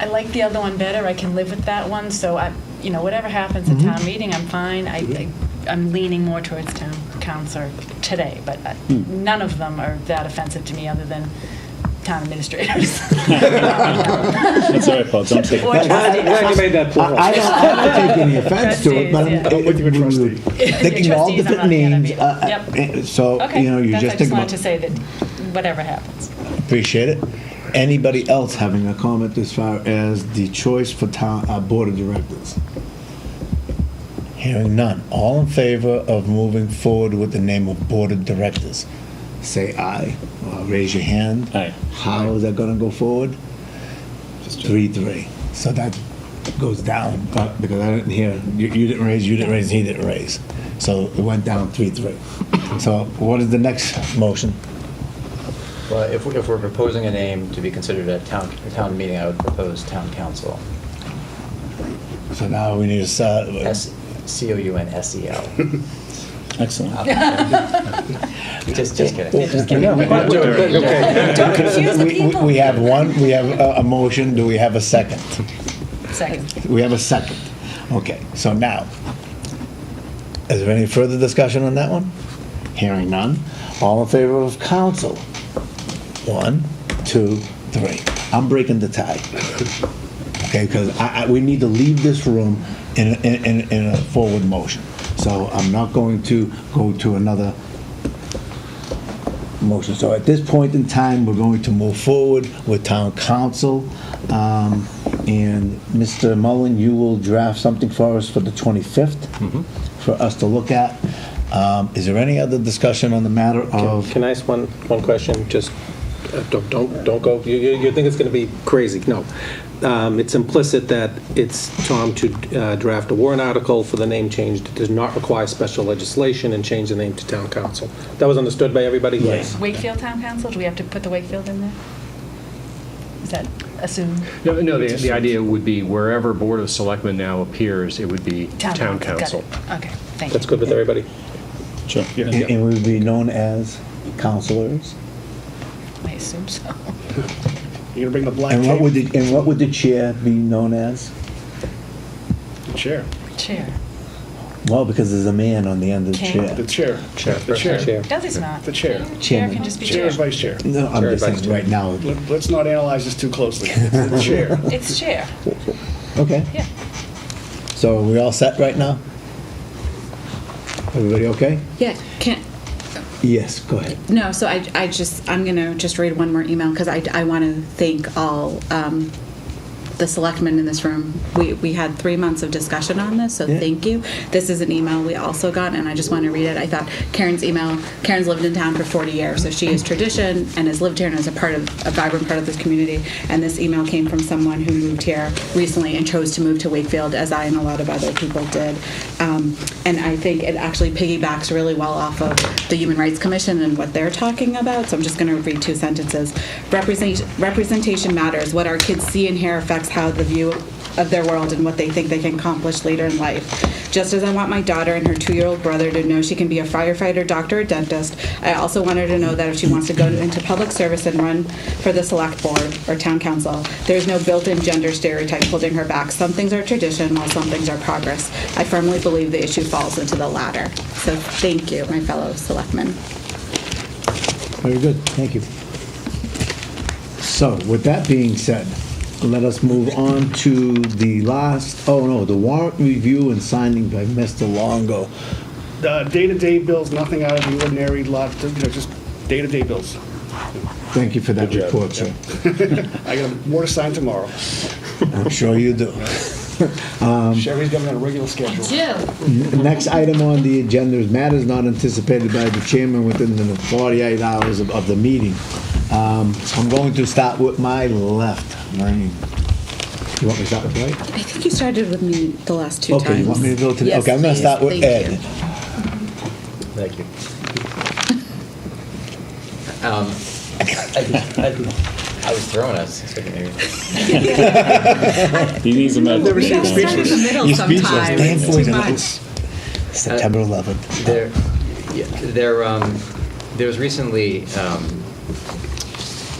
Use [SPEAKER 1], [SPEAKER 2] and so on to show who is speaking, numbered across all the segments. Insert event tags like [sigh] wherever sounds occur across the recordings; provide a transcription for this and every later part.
[SPEAKER 1] I like the other one better, I can live with that one, so I, you know, whatever happens
[SPEAKER 2] Mm-hmm.
[SPEAKER 1] at town meeting, I'm fine. I, I- I'm leaning more towards town council today, but uh,
[SPEAKER 2] Hmm.
[SPEAKER 1] none of them are that offensive to me, other than town
[SPEAKER 2] [laughs]
[SPEAKER 1] administrators.
[SPEAKER 3] That's all right, Paul, don't take
[SPEAKER 1] Or
[SPEAKER 3] it.
[SPEAKER 4] I'm [laughs] glad you made that plural.
[SPEAKER 2] I I don't, I don't take any offense to it, but
[SPEAKER 1] Trustees, yeah.
[SPEAKER 2] I'm
[SPEAKER 3] I'm with you with
[SPEAKER 2] we were
[SPEAKER 3] trustee.
[SPEAKER 1] [laughs]
[SPEAKER 2] Thinking all
[SPEAKER 1] Trustees, I'm
[SPEAKER 2] different
[SPEAKER 1] not the enemy.
[SPEAKER 2] names, uh, uh,
[SPEAKER 1] Yep.
[SPEAKER 2] eh, so,
[SPEAKER 1] Okay,
[SPEAKER 2] you know, you
[SPEAKER 1] that's, I
[SPEAKER 2] just think
[SPEAKER 1] just wanted
[SPEAKER 2] about,
[SPEAKER 1] to say that whatever happens.
[SPEAKER 2] appreciate it. Anybody else having a comment as far as the choice for town, uh, board of directors?
[SPEAKER 5] Hearing none, all in favor of moving forward with the name of Board of Directors?
[SPEAKER 2] Say aye, or raise your hand.
[SPEAKER 3] Aye.
[SPEAKER 2] How is that gonna go forward? Three, three.
[SPEAKER 5] So that goes down,
[SPEAKER 2] Uh, Because I didn't hear,
[SPEAKER 5] you, you didn't raise, you didn't raise, he didn't raise. So
[SPEAKER 2] it went down three, three. So what is the next?
[SPEAKER 5] motion,
[SPEAKER 6] Well, if, we- if we're proposing a name to be considered at town, town meeting, I would propose town council.
[SPEAKER 5] so now we need to, start-
[SPEAKER 6] S, C O U N S E L.
[SPEAKER 3] Excellent.
[SPEAKER 6] [laughs] Just, just kidding.
[SPEAKER 1] Don't confuse the
[SPEAKER 5] we, we-
[SPEAKER 1] people.
[SPEAKER 5] we have one, we have a, a motion, do we have a second?
[SPEAKER 1] Second.
[SPEAKER 5] We have a second. Okay, so now, is there any further discussion on that one? Hearing none, all in favor of council? One, two, three. I'm breaking the tie. Okay, because I, I, we need to leave this room in, in, in- in a forward motion.
[SPEAKER 2] So I'm not going to go to another
[SPEAKER 5] Motion, so at this point in time, we're going to move forward with town council. Um, And Mr. Mullen, you will draft something for us for the 25th for us to look at. Um, Is there any other discussion on the matter of?
[SPEAKER 4] Can I ask one, one question? Just, uh, don't, don't, don't go, you, you you think it's going to be crazy, no. Um, It's implicit that it's Tom to uh, draft a warrant article for the name change that does not require special legislation and change the name to town council. That was understood by everybody? Yes.
[SPEAKER 1] Wakefield Town Council, do we have to put the Wakefield in there? Is that assumed?
[SPEAKER 7] No, no, the, the idea would be wherever Board of Selectmen now appears, it would be town
[SPEAKER 1] got
[SPEAKER 7] council.
[SPEAKER 1] it. Okay, thank you.
[SPEAKER 4] That's good with everybody?
[SPEAKER 3] Sure.
[SPEAKER 5] And and we would be known as counselors?
[SPEAKER 1] I assume so. [laughs]
[SPEAKER 8] You're gonna bring the black
[SPEAKER 5] And what would,
[SPEAKER 8] tape?
[SPEAKER 5] the- and what would the chair be known as?
[SPEAKER 8] The chair,
[SPEAKER 1] Chair.
[SPEAKER 5] Well, because there's a man on the end of the
[SPEAKER 1] King.
[SPEAKER 5] chair.
[SPEAKER 8] the chair.
[SPEAKER 4] Chair.
[SPEAKER 8] The chair.
[SPEAKER 1] No, there's not.
[SPEAKER 8] The chair.
[SPEAKER 1] Chair
[SPEAKER 5] Chairman.
[SPEAKER 1] can just be
[SPEAKER 8] Chair
[SPEAKER 1] chair.
[SPEAKER 8] is vice chair.
[SPEAKER 5] No, I'm
[SPEAKER 4] Chair,
[SPEAKER 5] just
[SPEAKER 4] vice
[SPEAKER 5] saying,
[SPEAKER 4] chair.
[SPEAKER 5] right now,
[SPEAKER 8] Let- Let's not analyze this too closely. The
[SPEAKER 5] [laughs]
[SPEAKER 8] chair.
[SPEAKER 1] It's chair,
[SPEAKER 5] okay.
[SPEAKER 1] yeah.
[SPEAKER 5] So are we all set right now? Everybody okay?
[SPEAKER 9] Yeah, can,
[SPEAKER 5] Yes, go ahead.
[SPEAKER 9] no, so I, I just, I'm going to just read one more email because I, I want to thank all um, the selectmen in this room. We, we had three months of discussion on this, so
[SPEAKER 5] Yeah.
[SPEAKER 9] thank you. This is an email we also got, and I just want to read it. I thought Karen's email, Karen's lived in town for 40 years, so she is tradition and has lived here and is a part of, a vibrant part of this community. And this email came from someone who moved here recently and chose to move to Wakefield, as I and a lot of other people did. Um, And I think it actually piggybacks really well off of the Human Rights Commission and what they're talking about, so I'm just going to read two sentences. Representation representation matters. What our kids see and hear affects how the view of their world and what they think they can accomplish later in life. Just as I want my daughter and her two year old brother to know she can be a firefighter, doctor, or dentist, I also want her to know that if she wants to go into public service and run for the select board or town council, there's no built in gender stereotype holding her back. Some things are tradition while some things are progress. I firmly believe the issue falls into the latter. So thank you, my fellow selectmen.
[SPEAKER 5] Very good, thank you.
[SPEAKER 2] So with that being said, let us move on to the last, oh no, the warrant review and signing by Mr. Longo.
[SPEAKER 8] Uh, Day-to-day bills, nothing out of the ordinary, lot, you know, just day-to-day bills.
[SPEAKER 2] Thank you for that
[SPEAKER 3] Good job.
[SPEAKER 2] report, sir.
[SPEAKER 8] I got more to sign tomorrow.
[SPEAKER 5] I'm sure you do.
[SPEAKER 4] Um,
[SPEAKER 8] Sherry's got me on a regular schedule.
[SPEAKER 2] Next item on the agenda is matters not anticipated by the chairman within the 48 hours of, of the meeting. Um, I'm going to start with my left lane. You want me to start with right?
[SPEAKER 9] I think you started with me the last two times.
[SPEAKER 2] Okay, you want me to go to, the-
[SPEAKER 9] Yes,
[SPEAKER 2] okay, I'm gonna
[SPEAKER 9] please.
[SPEAKER 2] start with
[SPEAKER 9] Thank
[SPEAKER 2] Ed.
[SPEAKER 9] you.
[SPEAKER 6] Thank you. Um, [laughs] I, I- I was throwing us. so I can hear you.
[SPEAKER 3] He needs a medal.
[SPEAKER 9] We got started in the middle
[SPEAKER 5] You're speechless.
[SPEAKER 9] Oh, sometimes.
[SPEAKER 5] Damn
[SPEAKER 9] It's
[SPEAKER 5] boys
[SPEAKER 9] too
[SPEAKER 5] and
[SPEAKER 9] much.
[SPEAKER 5] girls. September 11th.
[SPEAKER 6] There, yeah, there, um, there was recently, um,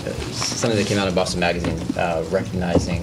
[SPEAKER 6] uh, something that came out in Boston Magazine, uh, recognizing